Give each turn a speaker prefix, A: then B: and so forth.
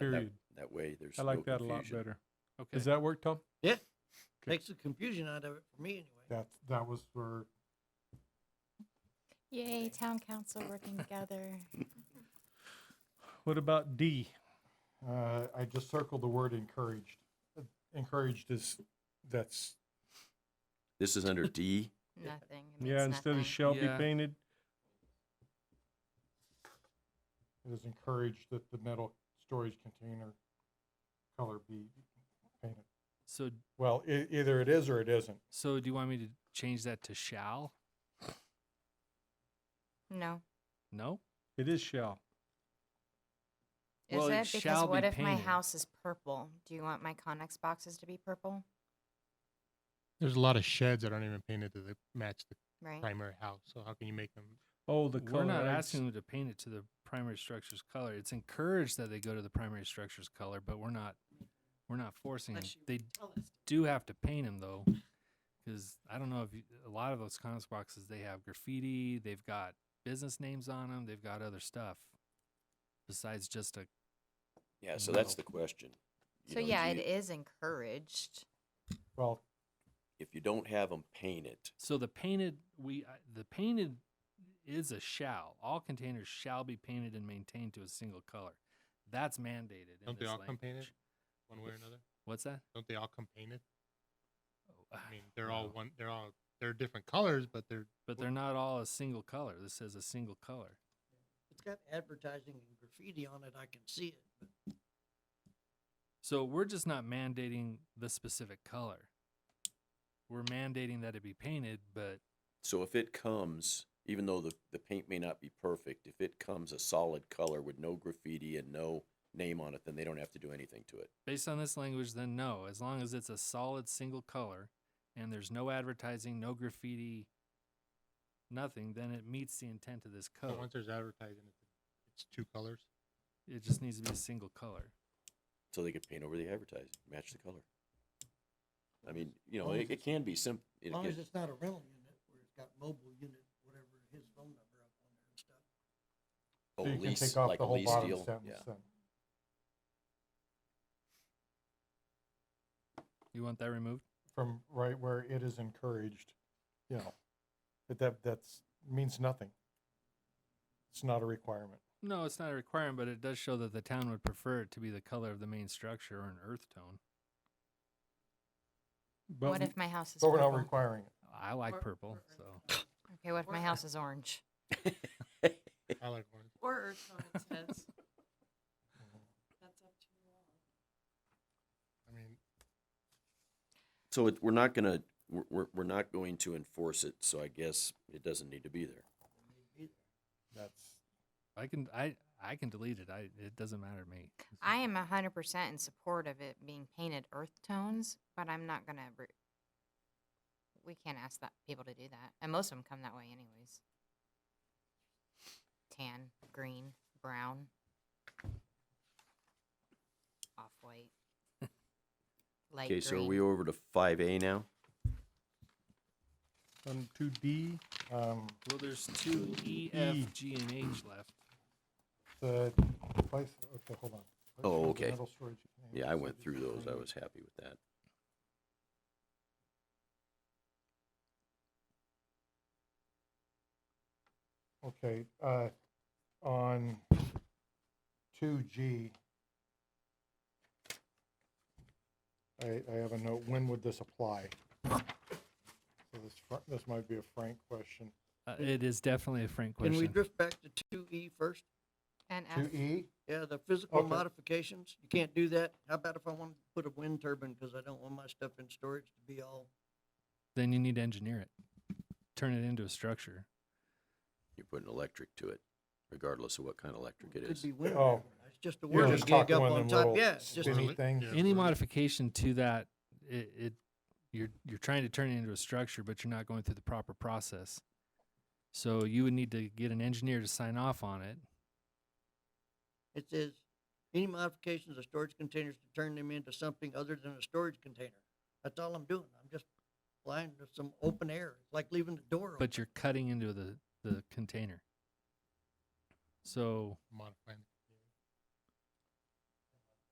A: that- that-
B: Period.
A: That way, there's
B: I
A: no
B: like that a lot
A: confusion.
B: better. Does
C: Okay,
B: that work, Tom?
D: Yeah.
B: Okay.
D: Makes the confusion out of it for me anyway.
E: That, that was for,
F: Yay, town council working together.
B: What about D?
E: uh, I just circled the word encouraged. Uh,
B: Encouraged is, that's.
A: This is under D.
F: Nothing. it
B: Yeah,
F: means
B: instead
F: nothing.
B: of shall be
C: Yeah.
B: painted,
E: It is encouraged that the metal storage container color be painted.
C: so,
E: Well, e- either it is or it isn't.
C: so do you want me to change that to shall?
F: No.
C: No?
B: it is shall.
F: Is
C: Well, it
F: it? Because
C: shall be
F: what if my
C: painted.
F: house is purple? Do you want my Connex boxes to be purple?
G: There's a lot of sheds that aren't even painted to the, match the
F: Right?
G: primary house. So how can you make them?
B: Oh, the
C: We're
B: color.
C: not
B: I
C: asking them to paint it to the primary structure's color. It's encouraged that they go to the primary structure's color, but we're not, we're not forcing them.
D: Unless you
C: They
D: tell us.
C: do have to paint them though, because I don't know if you, a lot of those comics boxes they have graffiti, they've got business names on them, they've got other stuff besides just a
A: Yeah, so that's the
C: No.
A: question. You
F: So
A: know,
F: yeah,
A: you-
F: it is encouraged.
E: Well,
A: If you don't have them painted,
C: So the painted we uh, the painted is a shall. All containers shall be painted and maintained to a single color. That's mandated. in
G: Don't they
C: this
G: all come painted
C: language.
G: one way or another?
C: What's that?
G: Don't they all come painted?
C: Oh,
G: I mean, they're all
C: no.
G: one. They're all they're different colors, but they're
C: But they're not all a single color. This says a single color.
D: It's got advertising and graffiti on it, I can see it. but
C: So we're just not mandating the specific color. We're mandating that it be painted, but
A: so if it comes, even though the, the paint may not be perfect, if it comes a solid color with no graffiti and no name on it, then they don't have to do anything to it.
C: based on this language, then no. As long as it's a solid single color and there's no advertising, no graffiti, nothing, then it meets the intent of this
G: so
C: code.
G: once there's advertising, it's- it's two colors.
C: It just needs to be a single color.
A: So they could paint over the advertising, match the color. I mean, you know,
D: Long
A: it,
D: as
A: it
D: it's-
A: can be simple.
D: As long as it's not a rental unit where it's got mobile unit, whatever his phone number up on there and stuff.
A: Oh,
E: so you can
A: lease-
E: take off
A: like
E: the
A: a
E: whole
A: lease
E: bottom
A: deal,
E: sentence
A: yeah.
E: then.
C: You want that removed?
E: From right where it is encouraged, you know, that- that, that's, means nothing. It's not a requirement.
C: No, it's not a requirement, but it does show that the town would prefer it to be the color of the main structure or an earth tone.
B: But
F: What
B: we-
F: if my house is
E: But we're not
F: purple?
E: requiring it.
C: I like purple, so.
F: Okay, what if my house is orange?
G: I like one.
H: Or Earth on its heads. That's up to you all.
G: I mean,
A: So it, we're not gonna, we're, we're, we're not going to enforce it, so I guess it doesn't need to be there.
E: That's,
C: I can I I can delete it. I it doesn't matter to me.
F: I am hundred percent in support of it being painted earth tones, but I'm not gonna. Re- we can't ask that people to do that, and most of them come that way anyways. Tan, green, brown, off white, light
A: Okay,
F: green.
A: so are we over to five A now?
B: on two D,
E: um,
C: Well, there's two
B: E.
C: E, F, G, and H left.
E: the place, okay, hold on. Place
A: Oh,
E: for the
A: okay.
E: metal storage container
A: Yeah, I
E: is
A: went
E: subject
A: through
E: to
A: those. I
E: permit.
A: was happy with that.
E: Okay, uh, on two G. I, I have a note, when would this apply? So this, fr- this might be a Frank question.
C: Uh, it is definitely a frank
D: Can
C: question.
D: we drift back to two E first?
F: And F.
E: Two E,
D: Yeah, the physical
E: Okay.
D: modifications, you can't do that. How about if I want to put a wind turbine, cause I don't want my stuff in storage to be all
C: then you need to engineer it, turn it into a structure.
A: You're putting electric to it, regardless of what kind of electric it
D: Could
A: is.
D: be winter.
E: Oh.
D: It's just a
E: you're
D: word you
E: just
D: gig
E: talking
D: up
E: one
D: on
E: of them
D: top.
E: little
D: Yeah, it's just,
E: spinny
G: Yeah.
E: things.
C: Any modification to that, it, it you're you're trying to turn it into a structure, but you're not going through the proper process. So you would need to get an engineer to sign off on it.
D: it says, any modifications of storage containers to turn them into something other than a storage container. That's all I'm doing. I'm just flying to some open air, It's like leaving the door open.
C: but you're cutting into the the container. So
G: modifying the